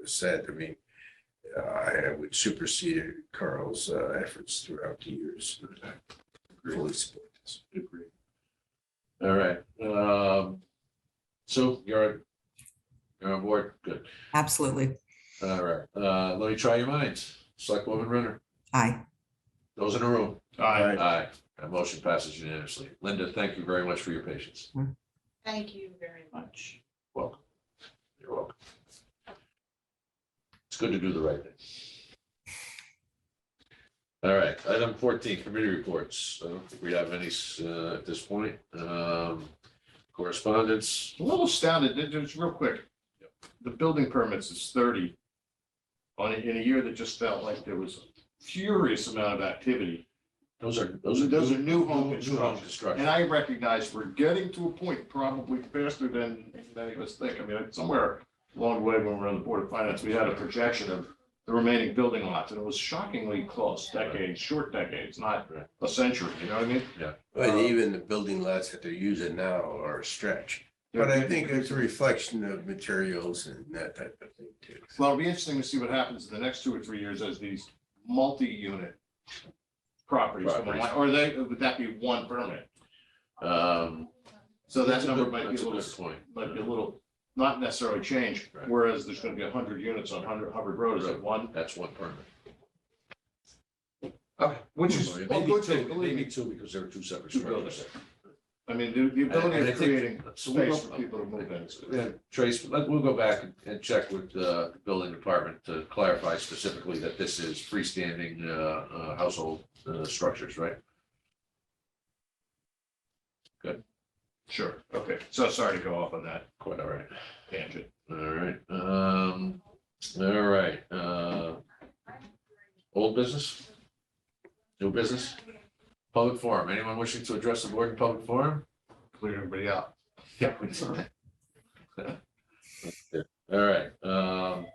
was said, I mean, uh, I would supersede Carl's uh, efforts throughout the years. I Fully support this. Agree. All right, um, Sue, you're, you're on board, good. Absolutely. All right, uh, let me try your minds. Select woman Renner, Aye. those in the room? Aye. Aye. That motion passes unanimously. Linda, thank you very much for your patience. Thank you very much. Welcome. You're welcome. It's good to do the right thing. All right, item fourteen, committee reports. I don't think we have any, uh, at this point. Um, correspondence, A little astounded, it- it's real quick. The building permits is thirty on, a- in a year that just felt like there was a furious amount of activity. Those are, those are. Those are new home New home construction. And construction. I recognize we're getting to a point probably faster than many of us think. I mean, somewhere along the way when we were on the Board of Finance, we had a projection of the remaining building lots, and it was shockingly close, decades, short decades, not Right. a century, you know what I mean? But even the building lots that they're using now are a stretch. But I think it's a reflection of materials and that type of thing too. Well, it'll be interesting to see what happens in the next two or three years as these multi-unit properties, come online. or they, would that be one permit? Um, So that that's a number good- might be that's a good little, Point. might be a little, not necessarily change, Right. whereas there's gonna be a hundred units on Hundred Hubbard Road, is it one? That's one permit. Which is a Maybe good two, thing, believe Maybe me. two, because there are two separate Two buildings. structures. I mean, the, the And ability I of think- creating so we'll space go- for people to move in. Yeah, Trace, let, we'll go back and- and check with the building department to clarify specifically that this is freestanding, uh, uh, household, uh, structures, right? Sure, okay, so sorry to go off on that Quite all right. tangent. All right, um, all right, uh, old business? New business? Public forum, anyone wishing to address the board in public forum? Clear everybody out. Yeah. All right, um,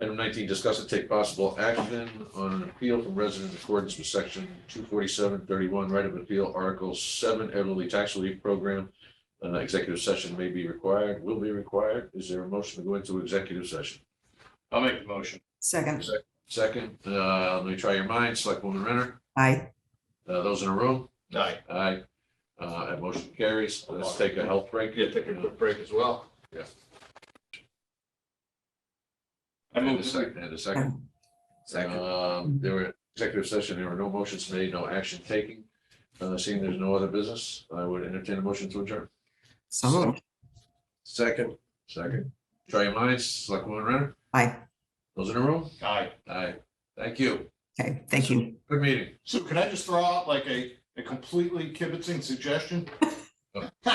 item nineteen, discuss and take possible action on an appeal from resident in accordance with section two forty-seven thirty-one, right of appeal, article seven, elderly tax relief program. Uh, executive session may be required, will be required. Is there a motion to go into executive session? I'll make the motion. Second. Second, uh, let me try your minds, Selectwoman Renner, Aye. uh, those in the room? Aye. Aye. Uh, that motion carries. Let's take a health break. Yeah, take a quick break as well. Yeah. I And move a second. second, and a second. Second, Um, there were executive session, there were no motions made, no action taken. Uh, seeing there's no other business, I would entertain a motion to adjourn. So moved. second, Second. Try your minds, Selectwoman Renner, Aye. those in the room? Aye. Aye. Thank you. Okay, thank you. Good meeting. So can I just throw out like a, a completely kibitzing suggestion?